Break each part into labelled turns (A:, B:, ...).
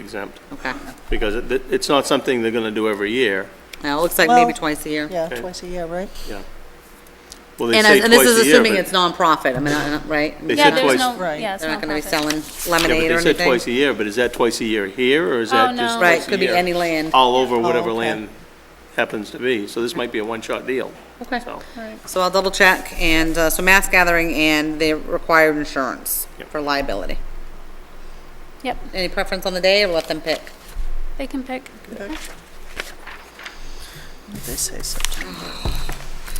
A: exempt,
B: Okay.
A: because it, it- it's not something they're gonna do every year.
B: Now, it looks like maybe
C: Well,
B: twice a year.
C: Yeah,
A: Okay.
C: twice a year, right?
A: Well, they
B: And
A: say
B: as- and this
A: twice
B: is
A: a year,
B: assuming
A: but-
B: it's nonprofit, I mean, I don't- right?
A: They
B: They're
A: said
D: Yeah,
B: not-
D: there's
A: twice-
D: no,
C: Right.
D: yeah, it's
B: They're not going to be
D: nonprofit.
B: selling
A: Yeah,
B: lemonade or
A: but they said twice
B: anything.
A: a year, but is that twice a year here, or is that just
D: Oh, no.
A: twice
B: Right,
A: a
B: could be
A: year?
B: any land. Oh,
A: All over whatever
C: okay.
A: land happens to be, so this might be a one-shot deal.
B: Okay.
A: So,
D: Right.
B: So I'll double check, and, uh, so mass gathering, and they required insurance
A: Yep.
B: for liability.
D: Yep,
B: Any preference on the day, or let them pick?
D: they can pick.
C: They say so.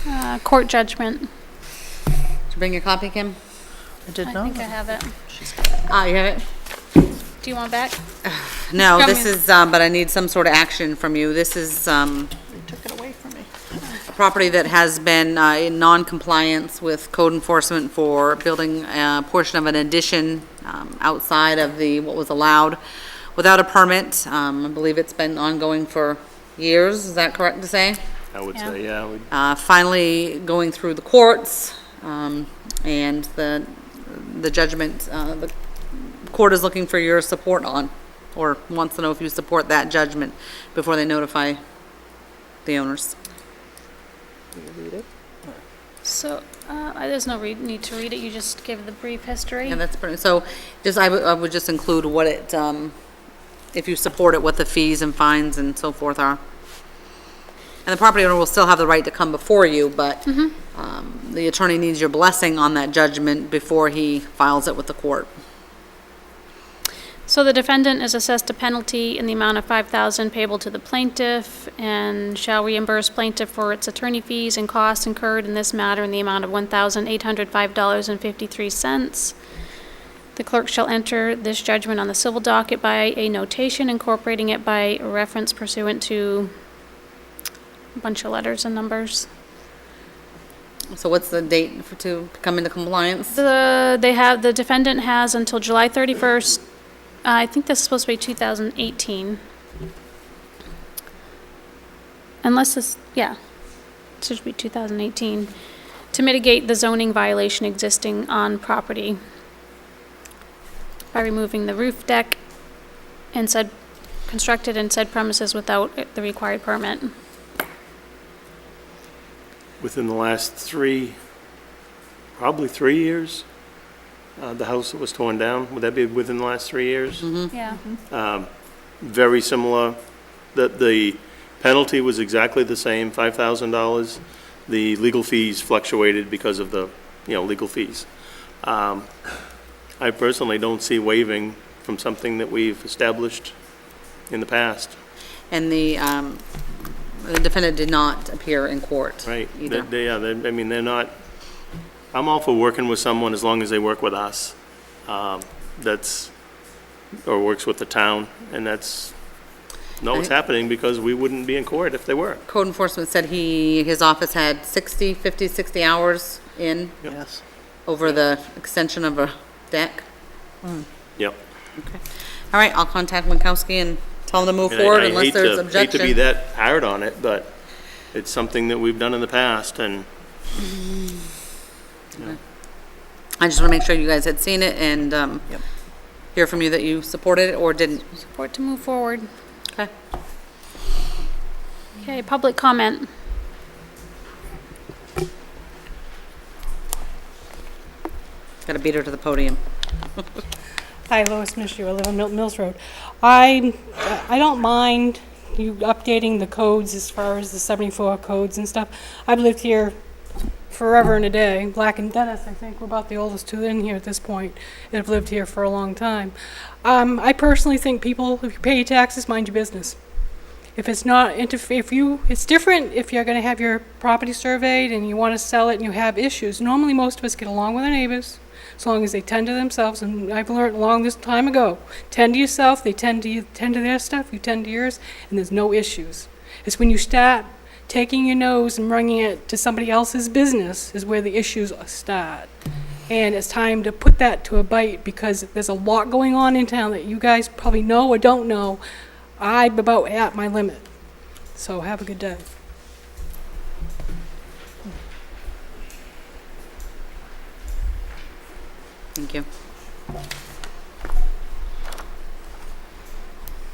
D: Uh, Court judgment.
B: Did you bring your copy, Kim?
C: I did
D: I
C: not.
D: think I have it. Uh,
B: Ah, you have it?
D: Do you want back?
B: No,
D: Come
B: this
D: in.
B: is, um, but I need some sort of action from you. This is, um,
C: They took it away from me.
B: a property that has been, uh, in non-compliance with code enforcement for building a portion of an addition, um, outside of the, what was allowed without a permit. Um, I believe it's been ongoing for years. Is that correct to say?
A: I would
D: Yeah.
A: say, yeah, we-
B: uh, finally going through the courts, um, and the, the judgment, uh, the court is looking for your support on, or wants to know if you support that judgment before they notify the owners.
D: So, uh, I- there's no re- need to read it, you just give the brief history.
B: Yeah, that's pretty, so just, I would, I would just include what it, um, if you support it, what the fees and fines and so forth are. And the property owner will still have the right to come before you, but, um, the attorney needs your blessing on that judgment before he files it with the court.
D: So the defendant is assessed a penalty in the amount of five thousand payable to the plaintiff and shall reimburse plaintiff for its attorney fees and costs incurred in this matter in the amount of one thousand eight hundred five dollars and fifty-three cents. The clerk shall enter this judgment on the civil docket by a notation incorporating it by reference pursuant to a bunch of letters and numbers.
B: So what's the date for, to come into compliance?
D: The, they have, the defendant has until July 31st, uh, I think this is supposed to be 2018. Unless this, yeah, it should be 2018, to mitigate the zoning violation existing on property by removing the roof deck and said, constructed in said premises without the required permit.
A: within the last three, probably three years, uh, the house that was torn down, would that be within the last three years? Um,
D: Yeah.
A: very similar, that the penalty was exactly the same, $5,000. The legal fees fluctuated because of the, you know, legal fees. Um, I personally don't see waiving from something that we've established in the past,
B: And the, um, the defendant did not appear in court.
A: right?
B: Either.
A: They, yeah, they, I mean, they're not, I'm all for working with someone as long as they work with us. Um, That's, or works with the town, and that's, no, it's
B: I-
A: happening because we wouldn't be in court if they were.
B: Code enforcement said he, his office had 60, 50, 60 hours in
C: Yes.
B: over the extension of a deck.
A: Yep.
B: Okay. All right, I'll contact Winkowski and tell him to move
A: And I-
B: forward
A: I
B: unless
A: hate
B: there's
A: to- Hate to be
B: objection.
A: that hard on it, but it's something that we've done in the past, and
B: I just want to make sure you guys had seen it and, um,
C: Yep.
B: hear from you that you supported it or didn't.
D: Support to move forward.
B: Okay.
D: Okay, public comment.
B: Got to beat her to the podium.
E: Hi, Lois Mishu, I live on Milton Mills Road. I, I don't mind you updating the codes as far as the 74 codes and stuff. I've lived here forever and a day. Black and Dennis, I think, we're about the oldest two in here at this point, and have lived here for a long time. Um, I personally think people, if you pay your taxes, mind your business. If it's not, interf- if you, it's different if you're gonna have your property surveyed and you wanna sell it and you have issues. Normally, most of us get along with our neighbors, as long as they tend to themselves, and I've learned long this time ago, tend to yourself, they tend to, you tend to their stuff, you tend to yours, and there's no issues. It's when you start taking your nose and running it to somebody else's business is where the issues start. And it's time to put that to a bite because there's a lot going on in town that you guys probably know or don't know. I'm about at my limit. So have a good day.
B: Thank you.